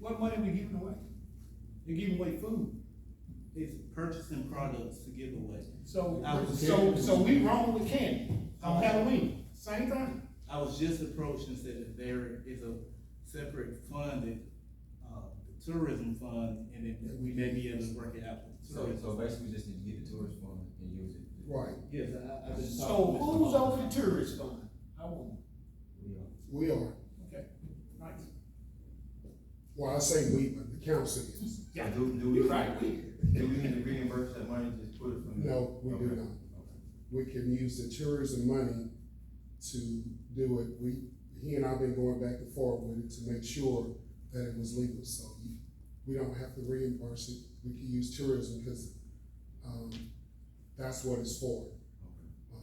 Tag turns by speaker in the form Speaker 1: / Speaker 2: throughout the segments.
Speaker 1: what money we giving away? They're giving away food,
Speaker 2: It's purchasing products to give away.
Speaker 1: so,
Speaker 2: I was
Speaker 1: so,
Speaker 2: there.
Speaker 1: so we wrong with candy on Halloween, same thing.
Speaker 2: I was just approached and said that there is a separate fund that, uh, tourism fund, and that we may be able to work it out. with
Speaker 3: So,
Speaker 2: tourism.
Speaker 3: so basically, we just need to get the tourist fund and use it.
Speaker 4: Right,
Speaker 2: Yes, I, I've been talking.
Speaker 1: So
Speaker 2: to Mr.
Speaker 1: who's
Speaker 2: Hall.
Speaker 1: over the tourist fund? I want,
Speaker 3: We are.
Speaker 4: we are,
Speaker 1: okay, nice.
Speaker 4: well, I say we, but the council is,
Speaker 1: Yeah,
Speaker 3: Do, do we,
Speaker 1: you're
Speaker 3: do
Speaker 1: right, we,
Speaker 3: we need to reimburse that money, just put it from? the-
Speaker 4: no, we do
Speaker 3: Okay.
Speaker 4: not. We can use the tourism money to do it, we, he and I have been going back and forth with it to make sure that it was legal, so you- we don't have to reimburse it, we can use tourism, because, um, that's what it's for.
Speaker 3: Okay.
Speaker 4: Um,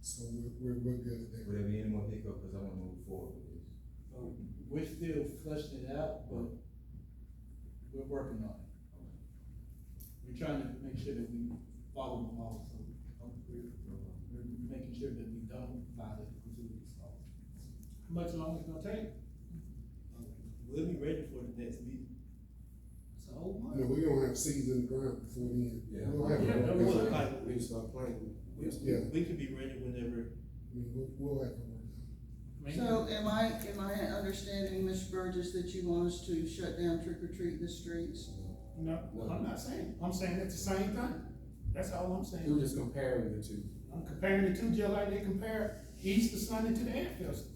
Speaker 4: So we're, we're, we're good there.
Speaker 3: Would there be any more hiccup, cause I wanna move forward with this?
Speaker 2: So We're still flushing it out, but we're working on it. We're trying to make sure that we follow the law, so uh, we're, we're making sure that we don't violate the facilities law.
Speaker 1: how much longer it's gonna take?
Speaker 2: Uh, We'll be ready for the next meeting.
Speaker 1: It's a whole
Speaker 4: You know,
Speaker 1: month.
Speaker 4: we don't have seeds in the ground before then.
Speaker 3: Yeah.
Speaker 4: We don't have.
Speaker 1: Yeah, that was
Speaker 4: a-
Speaker 1: like-
Speaker 2: we start playing. We, we,
Speaker 4: Yeah.
Speaker 2: we could be ready whenever.
Speaker 4: I mean, we'll, we'll have to work on it.
Speaker 5: So am I, am I understanding, Ms. Burgess, that you want us to shut down trick or treat the streets?
Speaker 1: No, I'm not saying, I'm saying it's the same thing, that's all I'm saying.
Speaker 6: You were just comparing the two.
Speaker 1: I'm comparing the two just like they compare Easter Sunday to the Ant Festival.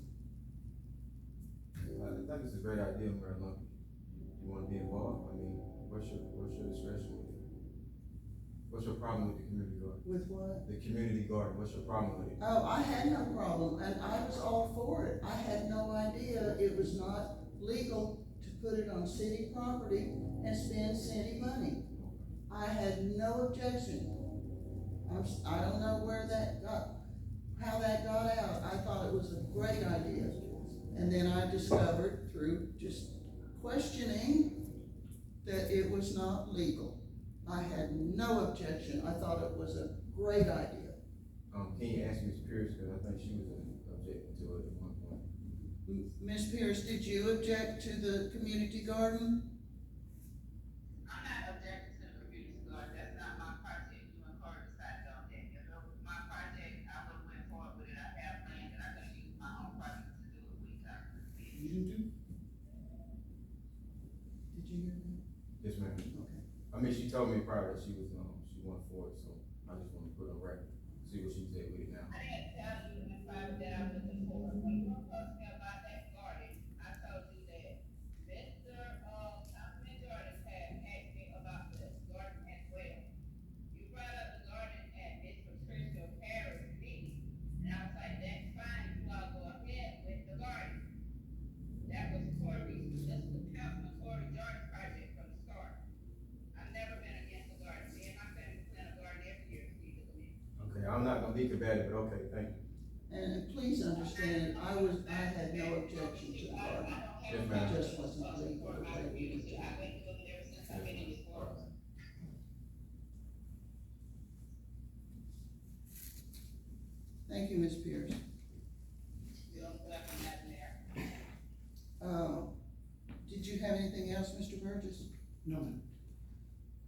Speaker 3: I think it's a great idea, Mayor Lumpy. You wanna be involved, I mean, what's your, what's your discretion with it? What's your problem with the community garden?
Speaker 5: With what?
Speaker 3: The community garden, what's your problem with it?
Speaker 5: Oh, I had no problem, and I was all for it. I had no idea it was not legal to put it on city property and spend city money. I had no objection. I'm, s- I don't know where that got, how that got out. I thought it was a great idea. And then I discovered through just questioning that it was not legal. I had no objection. I thought it was a great idea.
Speaker 3: Um, can you ask Ms. Pierce, cause I think she was objecting to it at one point.
Speaker 5: M- Ms. Pierce, did you object to the community garden?
Speaker 7: I'm not objecting to the community garden, that's not my project, you and Carter decided on that, if it was my project, I would've went forward with it, I have land, and I could use my own project to do it, we got to see.
Speaker 1: You do
Speaker 5: Did you hear that?
Speaker 3: Yes, ma'am.
Speaker 5: Okay.
Speaker 3: I mean, she told me prior that she was, um, she went for it, so I just wanna put it on record, see what she said with it now.
Speaker 7: I didn't tell you in the private that I was looking for, when you were talking about that garden, I told you that Mr. Uh, Councilman Jordan had asked me about the garden as well. You brought up the garden at Miss Patricia Harris' meeting, and I was like, that's fine, you all go ahead with the garden. That was Corey's, that's the Councilman Corey Jordan project from the start. I've never been against the garden, me and my family plant a garden every year, we do it.
Speaker 3: Okay, I'm not gonna be combative, but okay, thank you.
Speaker 5: And and please understand, I was, I had no objection to the garden.
Speaker 3: Yes,
Speaker 5: It
Speaker 3: ma'am.
Speaker 5: just wasn't legal the way we were doing it. Thank you, Ms. Pierce. Uh, did you have anything else, Mr. Burgess?
Speaker 1: No, ma'am.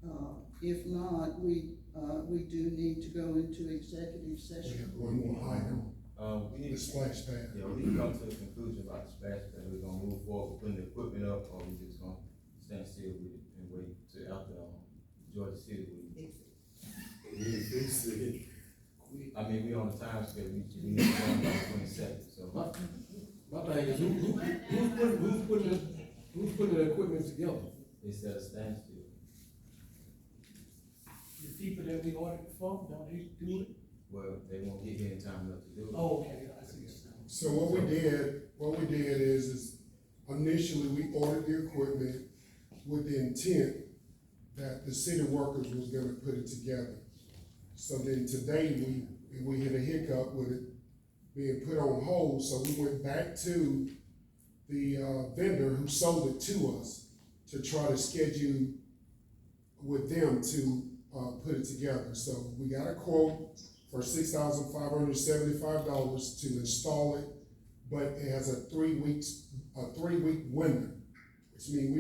Speaker 5: Uh, if not, we, uh, we do need to go into executive
Speaker 4: We
Speaker 5: session.
Speaker 4: have one more item,
Speaker 3: Um, we
Speaker 4: the
Speaker 3: need to.
Speaker 4: splash pad.
Speaker 3: Yeah, we need to come to a conclusion about the splash pad, we're gonna move forward, with putting the equipment up, or we just gonna stand still with it and wait till after, um, Georgia City with it. I mean, we on the time scale, we, we need to go on by twenty-second, so.
Speaker 6: My, my thing is, who, who, who's putting, who's putting, the- who's putting the equipment together?
Speaker 3: It's at a standstill.
Speaker 1: the people that we ordered for, don't they do it?
Speaker 3: Well, they won't get here in time enough to do it.
Speaker 1: Oh, okay, I see what you're saying.
Speaker 4: So what we did, what we did is, is initially, we ordered the equipment with the intent that the city workers was gonna put it together. So then today, we, we hit a hiccup with it being put on hold, so we went back to the, uh, vendor who sold it to us to try to schedule with them to, uh, put it together. So we got a quote, for six thousand five hundred seventy-five dollars to install it, but it has a three weeks, a three-week window, which means we